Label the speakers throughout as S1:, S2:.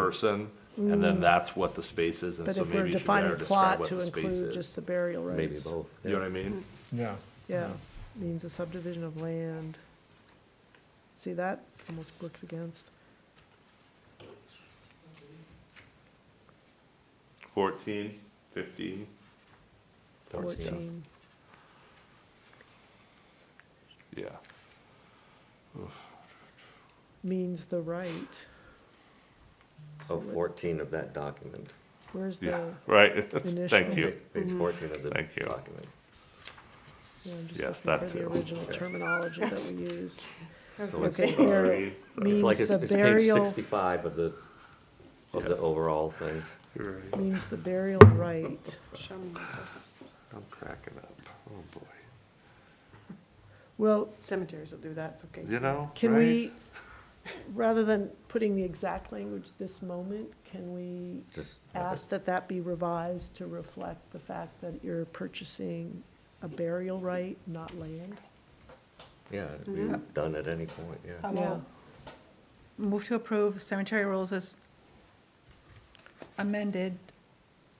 S1: person, and then that's what the space is, and
S2: Mm. But
S1: so
S2: if we're
S1: maybe you should better
S2: defining
S1: describe
S2: plot
S1: what
S2: to
S1: the space
S2: include just
S1: is.
S2: the burial rights.
S3: Maybe both.
S1: You know what I mean?
S4: Yeah,
S2: Yeah, means a subdivision of land. See, that almost works against.
S1: Fourteen, fifteen,
S2: 14.
S1: yeah.
S2: Means the right.
S3: Oh, 14 of that document,
S2: Where's the,
S1: Yeah,
S2: yeah,
S1: right, thank
S2: initial-
S1: you.
S3: page 14 of the
S1: Thank you.
S3: document.
S2: I'm just
S1: Yes,
S2: looking
S1: that
S2: for the
S1: too.
S2: original terminology that we used.
S3: So it's,
S2: Okay, here,
S1: Sorry,
S2: it
S3: it's
S2: means
S3: like, it's
S2: the
S3: it's page
S2: burial,
S3: 65 of the, of the overall thing.
S1: You're right.
S2: means the burial right.
S5: Show me the places.
S1: I'm cracking up, oh boy,
S2: Well,
S5: Cemeteries will do that, it's okay.
S1: you know,
S2: can
S1: right?
S2: we, rather than putting the exact language this moment, can we
S3: Just have it-
S2: ask that that be revised to reflect the fact that you're purchasing a burial right, not land?
S3: Yeah, it'd
S2: Mm-hmm.
S3: be done at any point, yeah.
S6: I will move to approve cemetery rules as amended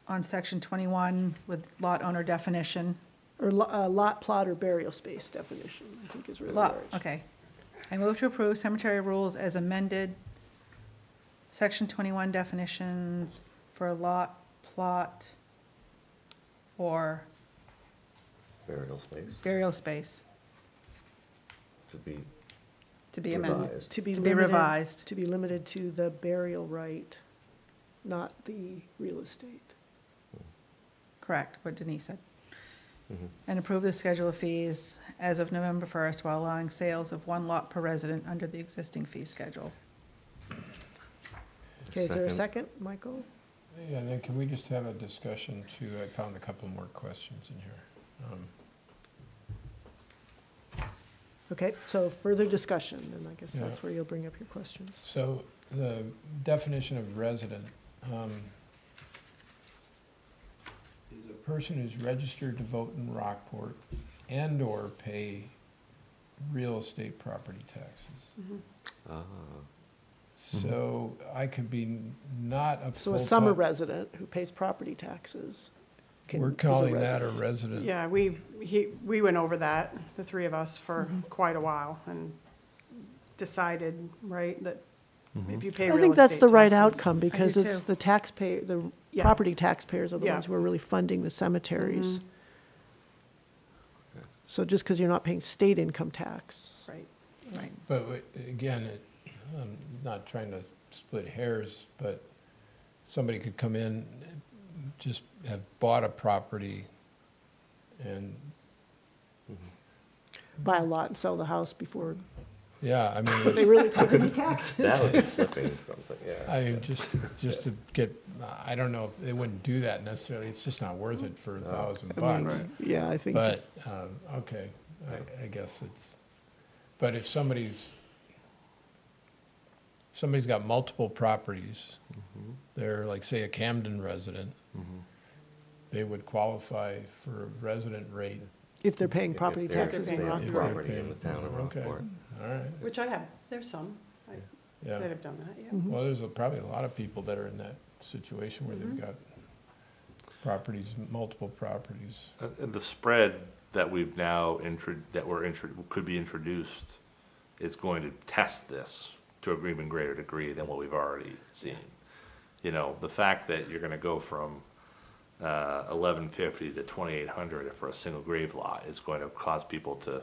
S6: on section 21 with lot owner definition.
S2: Or lo- uh, lot, plot, or burial space definition, I think is really where
S6: Lot,
S2: it should-
S6: okay. I move to approve cemetery rules as amended, section 21 definitions for lot, plot, or
S3: Burial space
S6: burial space
S3: to be
S6: to be amended.
S3: revised.
S2: To be
S6: To be
S2: limited.
S6: revised.
S2: To be limited to the burial right, not the real estate.
S6: Correct, what Denise said. And approve the schedule of fees as of November 1st while allowing sales of one lot per resident under the existing fee schedule.
S2: Okay, is there a
S3: Second.
S2: second, Michael?
S4: yeah, then can we just have a discussion too? I found a couple more questions in here. Um,
S2: Okay, so further discussion, and I guess
S4: Yeah.
S2: that's where you'll bring up your questions.
S4: So the definition of resident, um, is a person who's registered to vote in Rockport and/or pay real estate property taxes.
S3: Ah,
S2: Uh-huh.
S4: So I could be n- not a
S2: So
S4: full
S2: a summer resident who pays property taxes. can-
S4: We're
S2: is a
S4: calling that a
S2: resident.
S4: resident.
S5: Yeah, we, he, we went over that, the three of us, for
S2: Mm-hmm.
S5: quite a while and decided, right, that if you pay real estate
S2: I think that's the right
S5: taxes-
S2: outcome, because it's
S6: too.
S2: the taxpayer, the
S5: Yeah.
S2: property taxpayers are the
S5: Yeah.
S2: ones who are really funding the cemeteries. So just because you're not paying state income tax,
S5: Right.
S6: Right.
S4: But w- again, it, I'm not trying to split hairs, but somebody could come in, just have bought a property and,
S2: buy a lot and sell the house before
S4: yeah, I mean,
S2: they really pay any taxes.
S3: That would be flipping something, yeah.
S4: I just, just to get, I don't know, they wouldn't do that necessarily. It's just not worth it for a thousand
S2: I
S4: bucks.
S2: mean, Yeah, I think,
S4: But, um, okay, I, I guess it's, but if somebody's, somebody's got multiple properties, they're like, say, a Camden resident, they would qualify for a resident rate,
S2: if they're paying property
S3: If they're-
S2: taxes
S3: if
S2: in
S3: they have
S2: Rockport.
S3: Property in the town of
S4: Okay.
S3: Rockport.
S4: all right,
S5: Which I have, there's some I- that
S4: yeah.
S5: have done that,
S2: Mm-hmm.
S5: yeah.
S4: Well, there's a- probably a lot of people that are in that situation where they've got properties, multiple properties.
S1: Uh, And the spread that we've now intro, that we're intro, could be introduced is going to test this to an even greater degree than what we've already seen. You know, the fact that you're gonna go from, uh, eleven fifty to twenty-eight hundred for a single grave lot is going to cause people to,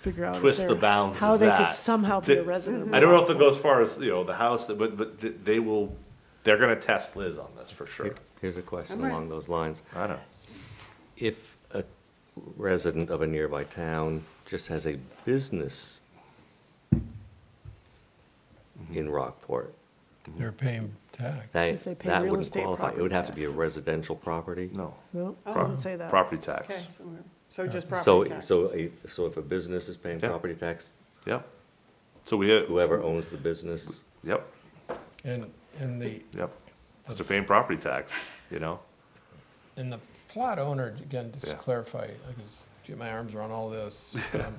S2: Figure out if
S1: Twist the
S2: they're-
S1: bounds
S2: How
S1: of
S2: they could
S1: that. mm-hmm.
S2: somehow be a
S1: Did-
S2: resident. of
S1: I don't know if
S2: Rockport.
S1: it goes as far as, you know, the house, but, but th- they will, they're gonna test Liz on this for sure.
S3: Here- Here's a question
S5: Alright.
S3: along those lines.
S1: I know.
S3: If a resident of a nearby town just has a business
S1: Mm-hmm.
S3: in Rockport,
S4: They're paying tax.
S3: that,
S2: If they pay
S3: that
S2: real
S3: wouldn't
S2: estate
S3: qualify. It would have to
S2: property
S3: be a residential property.
S1: No.
S2: No, it
S1: Pro-
S2: doesn't say that.
S1: Property tax.
S5: Oh, Okay, so we're, so
S3: So,
S5: just property tax.
S3: so, a- so if a business is paying
S1: Yeah.
S3: property tax,
S1: Yep. So we, uh,
S3: whoever owns the business,
S1: yep,
S4: And, and the,
S1: yep. So they're paying property tax, you know?
S4: And the plot owner, again, just to
S1: Yeah.
S4: clarify, I can get my arms around all this. Um,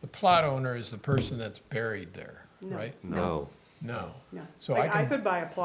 S4: the plot owner is the person that's buried there,
S5: No.
S4: right?
S3: no.
S4: No.
S5: No.
S4: So I
S5: Like, I
S4: can-
S5: could buy a plot